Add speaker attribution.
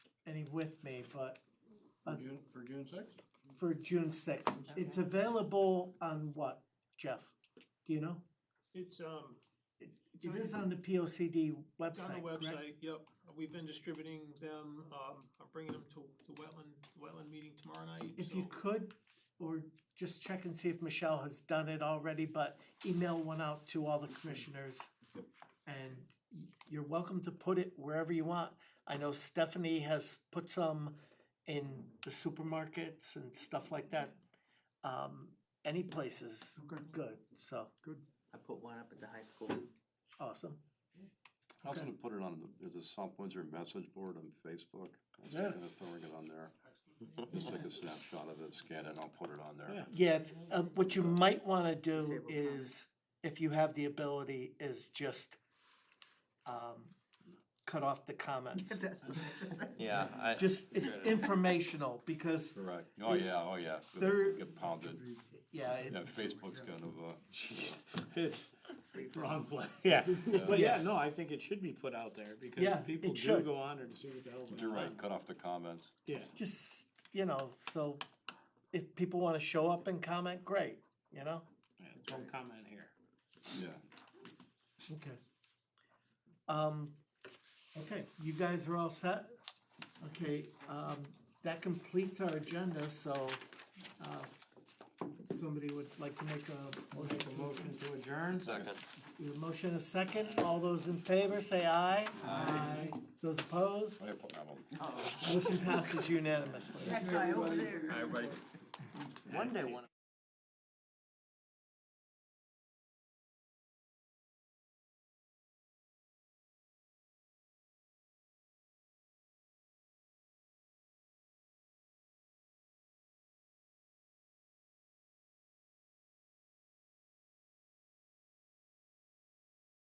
Speaker 1: me with me, but
Speaker 2: For
Speaker 1: Uh,
Speaker 2: June, for June sixth?
Speaker 1: for June sixth. It's available on what, Jeff? Do you know?
Speaker 3: It's, um,
Speaker 1: It is on the P O C D
Speaker 3: it's on the
Speaker 1: website, correct?
Speaker 3: website, yep. We've been distributing them, um, I'm bringing them to the wetland, wetland meeting tomorrow night,
Speaker 1: If
Speaker 3: so-
Speaker 1: you could, or just check and see if Michelle has done it already, but email one out to all the commissioners. And y- you're welcome to put it wherever you want. I know Stephanie has put some in the supermarkets and stuff like that. Um, any places, good, so,
Speaker 4: I put one up at the high school.
Speaker 1: awesome.
Speaker 5: I was gonna put it on, the- there's a South Windsor message board on Facebook. I was
Speaker 2: Yeah.
Speaker 5: thinking of throwing it on there. Just take a snapshot of it, scan it, and I'll put it on there.
Speaker 2: Yeah.
Speaker 1: Yeah, th- uh, what you might wanna do
Speaker 4: Disable
Speaker 1: is, if you have the ability, is just um cut off the comments.
Speaker 4: That's what I just said.
Speaker 6: Yeah, I,
Speaker 1: Just, it's informational, because,
Speaker 5: Right, oh yeah, oh yeah,
Speaker 1: There-
Speaker 5: get pounded,
Speaker 1: yeah,
Speaker 5: yeah,
Speaker 1: it,
Speaker 5: Facebook's kind of, uh,
Speaker 2: It's wrong play, yeah, but yeah,
Speaker 1: Yes.
Speaker 2: no, I think it should be put out there
Speaker 1: Yeah,
Speaker 2: because people
Speaker 1: it
Speaker 2: do
Speaker 1: should.
Speaker 2: go on there to see what the hell's going on.
Speaker 5: you're right, cut off the comments.
Speaker 2: Yeah,
Speaker 1: just, you know, so if people wanna show up and comment, great, you know?
Speaker 2: don't comment here.
Speaker 5: Yeah,
Speaker 1: Okay. Um, okay, you guys are all set? Okay, um, that completes our agenda, so, uh, somebody would like to make a motion to
Speaker 2: Motion to adjourn?
Speaker 6: second.
Speaker 1: We have a motion and a second, all those in favor say aye. Aye. Those opposed,
Speaker 5: I put that on.
Speaker 1: motion passes unanimously.
Speaker 4: That guy over there.
Speaker 6: One day, one